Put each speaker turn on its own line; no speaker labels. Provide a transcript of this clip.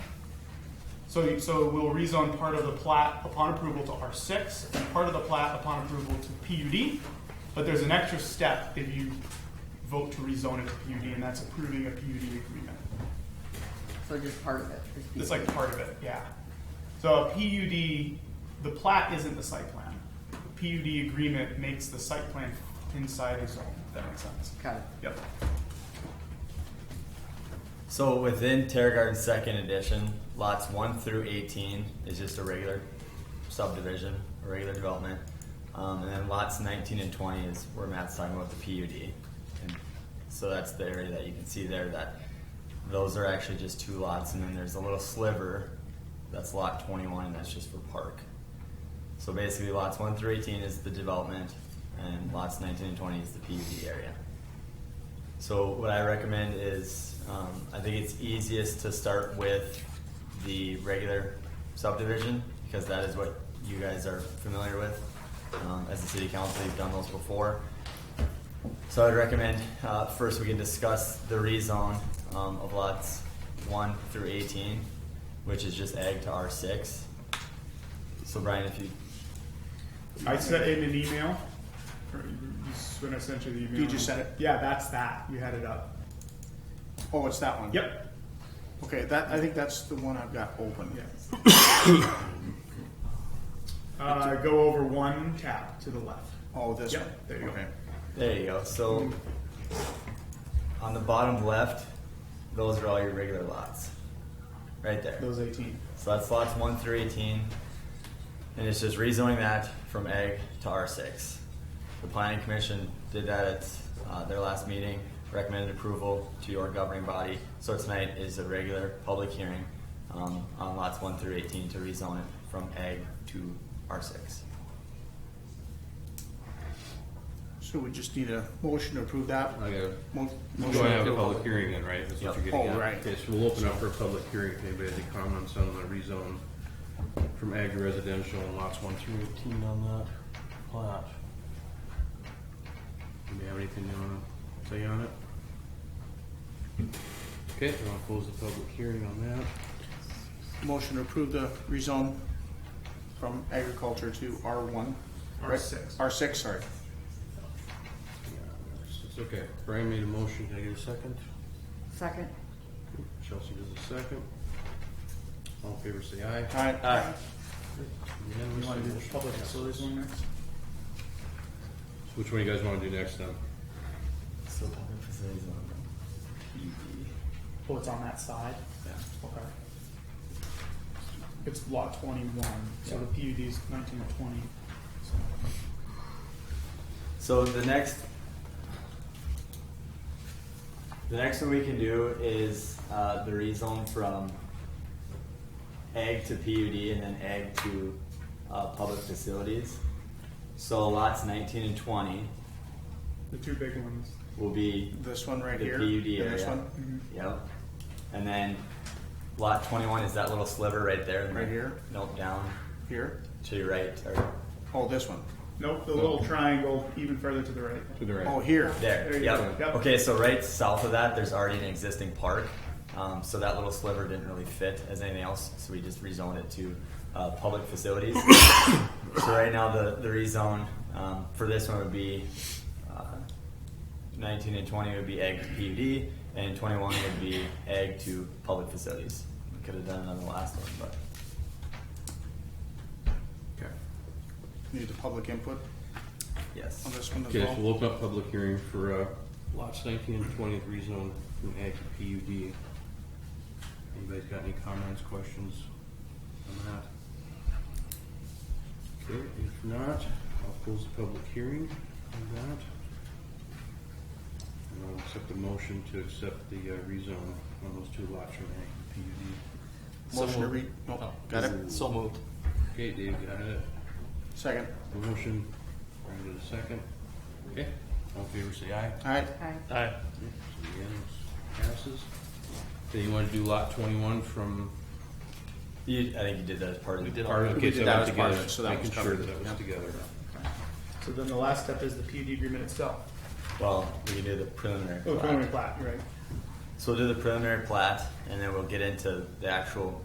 So, you- so we'll rezone part of the plat upon approval to R6, and part of the plat upon approval to PUD. But there's an extra step if you vote to rezone it to PUD, and that's approving a PUD agreement.
So just part of it.
It's like part of it, yeah. So a PUD, the plat isn't the site plan. The PUD agreement makes the site plan inside the zone, if that makes sense.
Got it.
Yep.
So within Terra Garden Second Edition, lots one through eighteen is just a regular subdivision, a regular development, um, and then lots nineteen and twenty is where Matt's talking about the PUD, and so that's the area that you can see there that those are actually just two lots, and then there's a little sliver that's lot twenty-one, and that's just for park. So basically, lots one through eighteen is the development, and lots nineteen and twenty is the PUD area. So what I recommend is, um, I think it's easiest to start with the regular subdivision because that is what you guys are familiar with. Um, as a city council, you've done those before. So I would recommend, uh, first we can discuss the rezone, um, of lots one through eighteen, which is just ag to R six. So Brian, if you,
I sent in an email. or you- you s- When I sent you the email.
You just sent it?
Yeah, that's that. You had it up.
Oh, it's that one?
Yep.
Okay, that, I think that's the one I've got open.
Yeah. Uh, go over one tab to the left.
Oh, this
Yep,
one?
there you go.
Okay.
there you go. So on the bottom left, those are all your regular lots, right there.
Those eighteen.
So that's lots one through eighteen. And it's just rezoning that from egg to R six. The planning commission did that at uh, their last meeting, recommended approval to your governing body. So tonight is a regular public hearing um, on lots one through eighteen to rezone it from egg to R six.
So we just need a motion to approve that?
I gotta-
Mo-
We're
motion
going to have
to
a
approve.
public hearing then, right? That's
Yep.
what you're getting
Oh,
at.
right.
Yes, we'll open up for a public hearing if anybody has any comments on the rezone from ag to residential and lots one through eighteen on that plat. Do we have anything you wanna say on it? Okay, i will close the public hearing on that.
Motion to approve the rezone from agriculture to R one. right?
R6.
R six, sorry.
It's okay. Brian made a motion. Can I get a second?
Second?
Chelsea does a second. All in favor, say aye.
All right.
Unanimous. Motion passes.
next?
Which one you guys wanna do next then?
So public facilities
Oh, it's on that side?
Yeah.
Okay. It's lot twenty-one, so the PUD is nineteen to twenty. So
So the next, the next one we can do is uh, the rezone from ag to PUD and then ag to uh, public facilities. So lots 19 and 20
The two big ones.
will be
This one right
the
here.
PUD
and
area.
This one,
Yep. And then lot 21 is that little sliver right there.
Right here?
Nope, down
here.
to your right or
Oh, this one.
Nope, the little triangle even further to the right.
To the right.
Oh, here.
There,
There you
yep.
go. Yep.
Okay, so right south of that, there's already an existing park. Um, so that little sliver didn't really fit as anything else, so we just rezoned it to uh, public facilities. so right now, the, the rezone um, for this one would be uh, 19 and 20 would be ag to PUD, and 21 would be ag to public facilities. We could have done it on the last one, but
Okay.
Need the public input
yes.
on this one as
Okay, so
well.
we'll open up public hearing for uh, lots nineteen and twenty, rezone from ag to PUD. Anybody's got any comments, questions on that? Okay, if not, I'll close the public hearing on that. And I'll accept the motion to accept the uh, rezone on those two lots from ag to PUD.
Motion to re, no, got it?
So moved.
Okay, Dave, got it?
Second.
Motion, Brian did a second. Okay, all in favor, say aye.
All right.
Aye.
Aye.
Unanimous. Passes. Then you wanna do lot twenty-one from
You, I think you did that as part of
We
the
did all
part
that.
of,
We
okay,
did
so
that
that was
as part of
together,
it, so that
making
was
sure
covered,
that was
yeah.
together.
So then the last step is the PUD agreement itself.
Well, we can do the preliminary.
Oh,
plat.
preliminary plat, you're right.
So we'll do the preliminary plat, and then we'll get into the actual